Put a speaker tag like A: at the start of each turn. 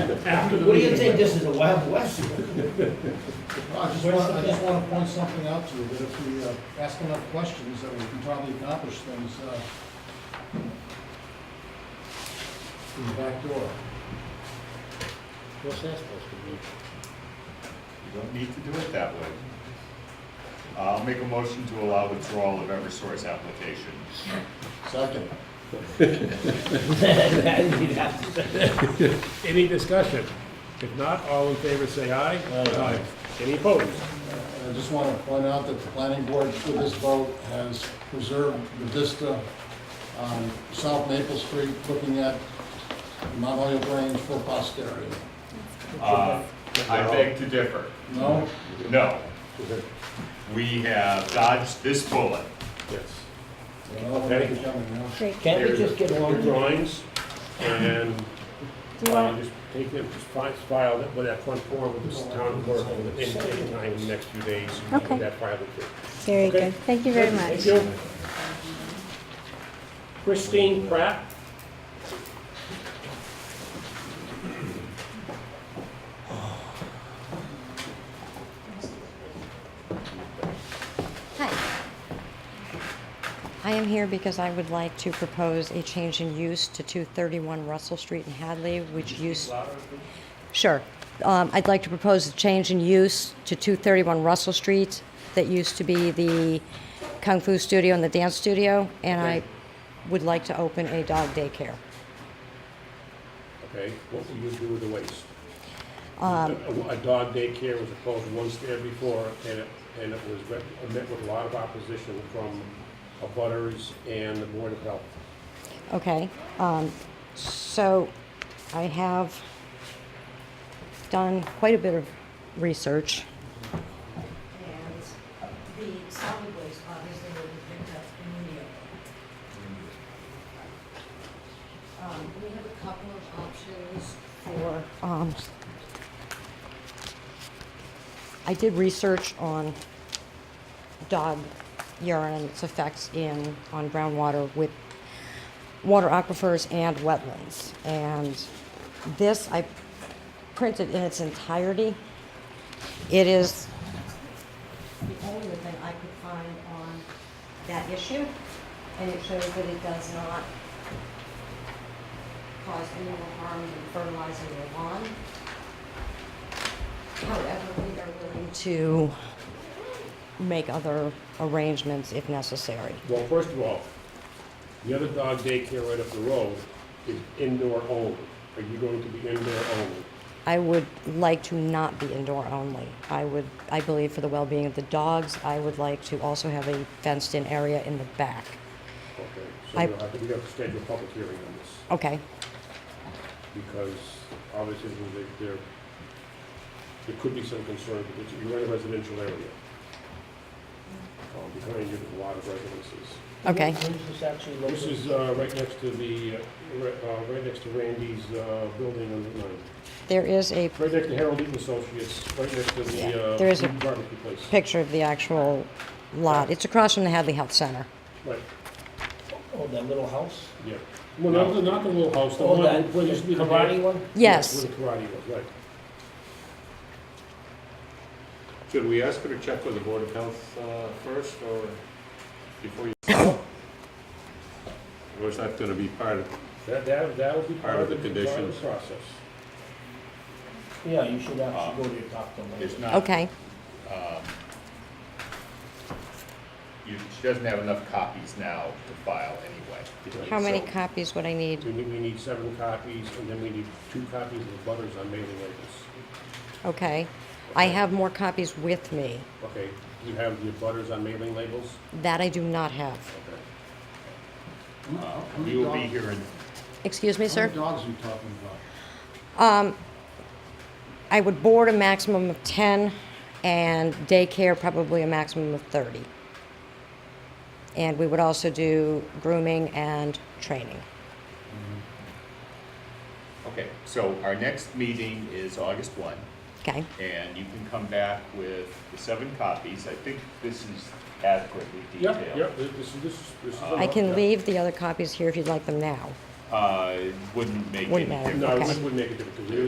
A: After the
B: What do you
A: meeting.
B: think, this is the Wild West?
C: I
B: here?
C: just want, I just want to point something out to you, that if we uh, ask enough questions, that we can probably accomplish things, uh, from the back door.
D: What's that supposed to be?
E: You don't need to do it that way. I'll make a motion to allow withdrawal of Eversource application.
C: Second.
B: You'd have to say.
A: Any discussion? If not, all in favor say aye. Aye. Any opposed?
C: And I just want to point out that the planning board for this vote has preserved the vista on South Maple Street, looking at Mount Olive Range for posterity.
E: Uh, I beg to differ.
C: No?
E: No. We have dodged this bullet.
A: Yes.
C: Well, we're coming now.
F: Great.
B: Can't we just get
A: All
B: along?
A: drawings, and
F: Do you
A: uh,
F: want,
A: just take them, just fi- file it with that front form with this town clerk in any time in the next few days. and
F: Okay.
A: That file will do.
F: very
A: Okay.
F: good. Thank you very
A: Thank
F: much.
A: you. Christine Pratt.
G: Hi. I am here because I would like to propose a change in use to 231 Russell Street in Hadley, which used... Sure. Um, I'd like to propose a change in use to 231 Russell Street that used to be the Kung Fu Studio and the Dance Studio, and I would like to open a dog daycare.
A: Okay, what will you do with the waste? A a dog daycare was proposed once there before, and it, and it was re- met with a lot of opposition from abutters and the Board of Health.
G: Okay, um, so I have done quite a bit of research. And the solid waste obviously will be picked up immediately. Um, we have a couple of options for, um, I did research on dog urine and its effects in, on groundwater with water aquifers and wetlands. And this I printed in its entirety. It is the only thing I could find on that issue, and it shows that it does not cause any more harm than fertilizing your lawn. However, we are willing to make other arrangements if necessary.
A: Well, first of all, the other dog daycare right up the road is indoor only. Are you going to be indoor only?
G: I would like to not be indoor only. I would, I believe for the well-being of the dogs, I would like to also have a fenced-in area in the back.
A: Okay,
G: I-
A: so we'll have to, we have to schedule a public hearing on this.
G: Okay,
A: because obviously there- there, there could be some concern because you're in a residential area.
G: Mm.
A: Um, Behind you, there's a lot of residences.
G: okay.
B: Who's this actually located?
A: This is uh, right next to the, uh, ri- uh, right next to Randy's uh, building on the line.
G: There is a
A: Right next to Harold Eaton Associates, right next to
G: Yeah,
A: the uh,
G: there is a-
A: barbecue place.
G: picture of the actual lot. It's across from the Hadley Health Center.
A: Right,
B: Oh, that little house? Oh,
A: yeah. Well, not the, not the little house, the one where used to be the
B: Karate one?
G: Yes,
A: Where the karate was, right.
H: Should we ask her to check with the Board of Health uh, first, or before you? Or is that gonna be part of,
A: That, that, that would be
H: Part of the
A: part of
H: conditions.
A: the process.
B: Yeah, you should
A: Ah.
B: actually go to talk to them.
E: It's not.
G: okay,
E: you- She doesn't have enough copies now to file anyway.
G: how many
E: So-
G: copies would I need?
A: We need, we need seven copies, and then we need two copies of the butters on mailing labels.
G: Okay. I have more copies with me.
A: Okay, do you have the butters on mailing labels?
G: That I do not have.
A: Okay.
E: Uh, We will be here in
G: Excuse me,
C: How
G: sir?
C: many dogs are you talking about?
G: I would board a maximum of 10 and daycare probably a maximum of 30. And we would also do grooming and training.
E: Okay, so our next meeting is August one,
G: Okay,
E: and you can come back with the seven copies. I think this is adequately
A: Yep,
E: detailed.
A: yep, this is, this is. this is
E: I
G: I
A: enough,
G: can
A: yeah.
G: leave the other copies here if you'd like them now.
E: Uh,
I: uh, wouldn't make any
J: Wouldn't matter.
I: difference.
E: No, it
J: Okay.
E: wouldn't make a difference, 'cause it